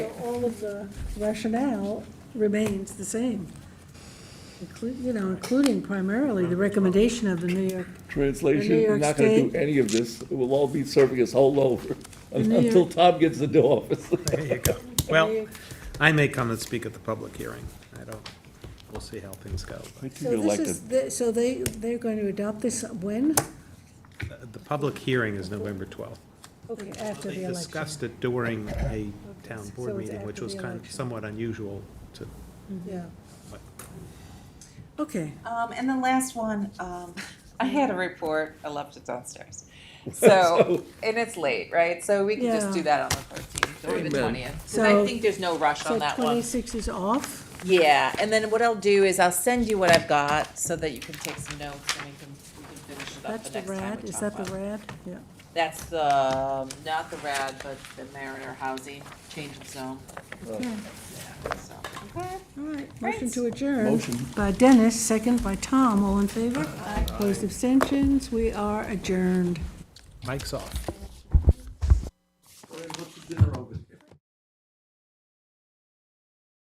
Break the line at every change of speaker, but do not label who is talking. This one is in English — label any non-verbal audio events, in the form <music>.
of the rationale remains the same. Inclu- You know, including primarily the recommendation of the New York, The New
Translation, we're
York
not gonna do
State-
any of this, it will all be serving us all over,
The New
<laughs> until
York-
Tom gets the new office.
There you go. Well, I may come and speak at the public hearing. I don't, we'll see how things go.
I think
so
you're
this
elected.
is, the- so they, they're going to adopt this when?
The public hearing is November 12th.
Okay, after
They
the election.
discussed it during a town
so
board
it's
meeting, which
after
was
the
kind of
election.
somewhat unusual to,
Yeah,
but
okay.
Um, and the last one, um, <laughs> I had a report, I left it <laughs> downstairs. So, and it's late, right? So we can just do
Yeah.
that on the thirteenth or the
Amen.
twentieth. Cause I
So-
think there's no rush
So
on that one.
twenty-six is off?
Yeah, and then what I'll do is I'll send you what I've got so that you can take some notes and we can, we can finish it up
That's
the
the
next time
rad,
we
is
talk
that
about
the
it.
rad? Yeah.
That's the, um, not the RAD, but the Mariner Housing Change of Zone,
Okay.
so. Okay.
All right,
Great.
motion to adjourn.
Motion.
By Dennis, second by Tom, all in favor? Opposed abstentions, we are adjourned.
Mike's off.